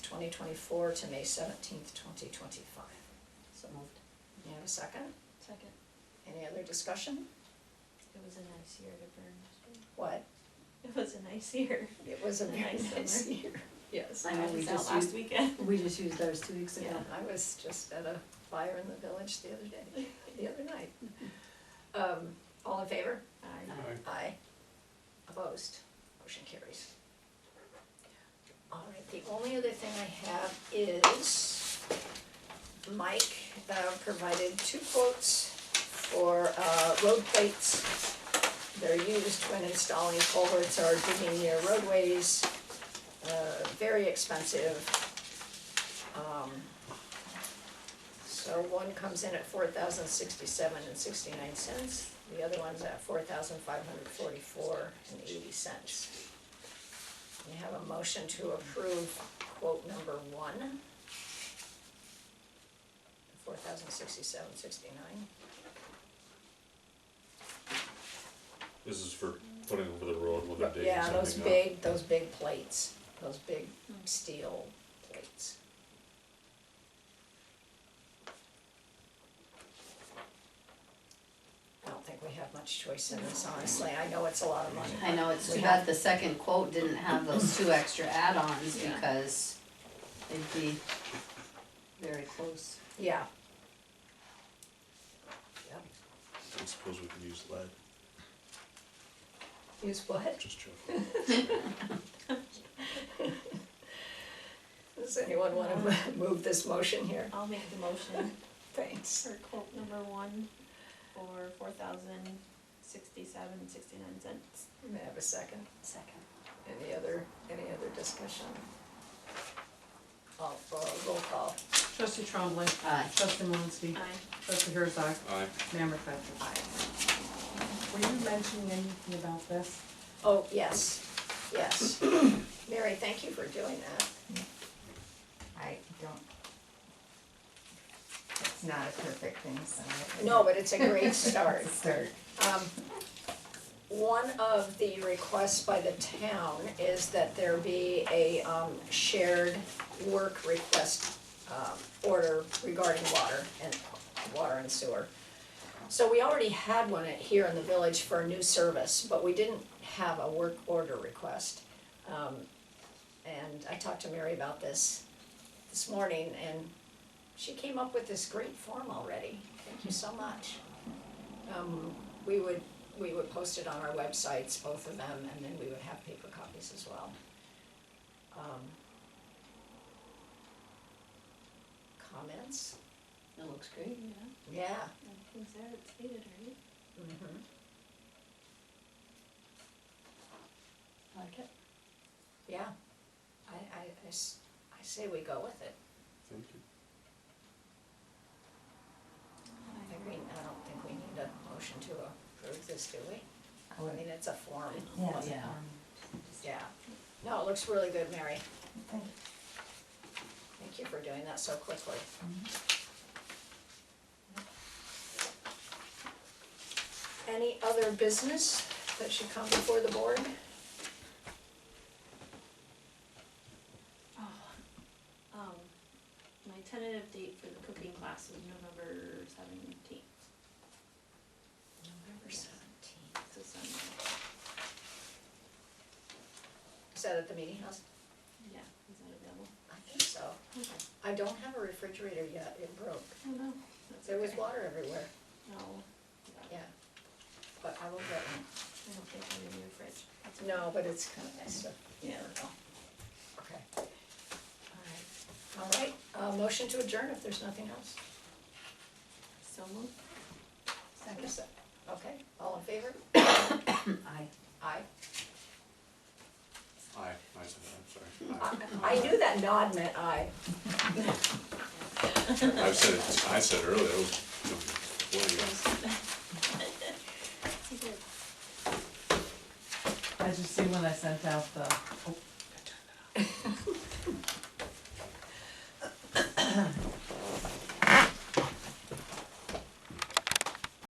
twenty twenty-four to May seventeenth, twenty twenty-five. So moved. You have a second? Second, Any other discussion? it was a nice year to burn. What? It was a nice year. It was a very Nice nice summer. year. Yes. I Yeah, we was out just last used- weekend. We just used ours two weeks ago. Yeah, I was just at a fire in the village the other day, the other night. Um, all in favor? I- Aye. Aye. Opposed? Motion carries. All right, the only other thing I have is Mike uh, provided two quotes for uh, road plates. They're used when installing culverts or digging near roadways. Uh, Very expensive. Um, So one comes in at four thousand sixty-seven and sixty-nine cents, the other one's at four thousand five hundred forty-four and eighty cents. We have a motion to approve quote number one. Four thousand sixty-seven, sixty-nine. This is for putting over the road when they're digging Yeah, something those up. big, those big plates, those big steel plates. I don't think we have much choice in this, honestly, I know it's a lot of money. I know, it's too bad the second quote didn't have those two extra add-ons Yeah. because it'd be very close. Yeah. Yep. I suppose we could use lead. Use what? Just joking. Does anyone wanna Um, move this motion here? I'll make the motion Thanks. for quote number one for four thousand sixty-seven, sixty-nine cents. May I have a second? Second. Any other, any other discussion? Oh, uh, roll call. Trustee Trombley. Aye. Trustee Malinsky. Aye. Trustee Herzog. Aye. Mayor McFetrich. Aye. Were you mentioning anything about this? Oh, yes, yes. Mary, thank you for doing that. I don't. It's not a perfect thing, so. I- No, but it's a great start. It's a Start. Um, One of the requests by the town is that there be a um, shared work request um, order regarding water and, water and sewer. So we already had one at- here in the village for a new service, but we didn't have a work order request. Um, And I talked to Mary about this this morning, and she came up with this great form already. Thank you so much. Um, we would, we would post it on our websites, both of them, and then we would have paper copies as well. Um, Comments? It looks great. Yeah, Yeah. everything's there, it's stated, right? Mm-hmm. Like it. Yeah. I, I, I s- I say we go with it. Thank you. I think we, I don't think we need a motion to approve this, do we? I I would- mean, it's a form. Yeah, Yeah. um, Yeah. No, it looks really good, Mary. thank you. Thank you for doing that so quickly. Any other business that should come before the board? Oh, um, my tentative date for the cooking class is November seventeenth, November seventeenth. it's a Sunday, Is that at the meeting house? yeah, is that available? I think so. Okay. I don't have a refrigerator yet, it broke. I don't know, that's There was okay. water everywhere, No, yeah. But I will get one. I don't think I'm in your fridge. That's okay. No, but it's kind of nice to, yeah, Yeah. Okay. All right, all right, uh, motion to adjourn if there's nothing else. So moved. Second. Okay, all in favor? Aye. Aye. Aye, I said that, I- sorry. I knew that nod meant aye. I have said, it- I said earlier, that was, what are you? As you see when I sent out the, oh,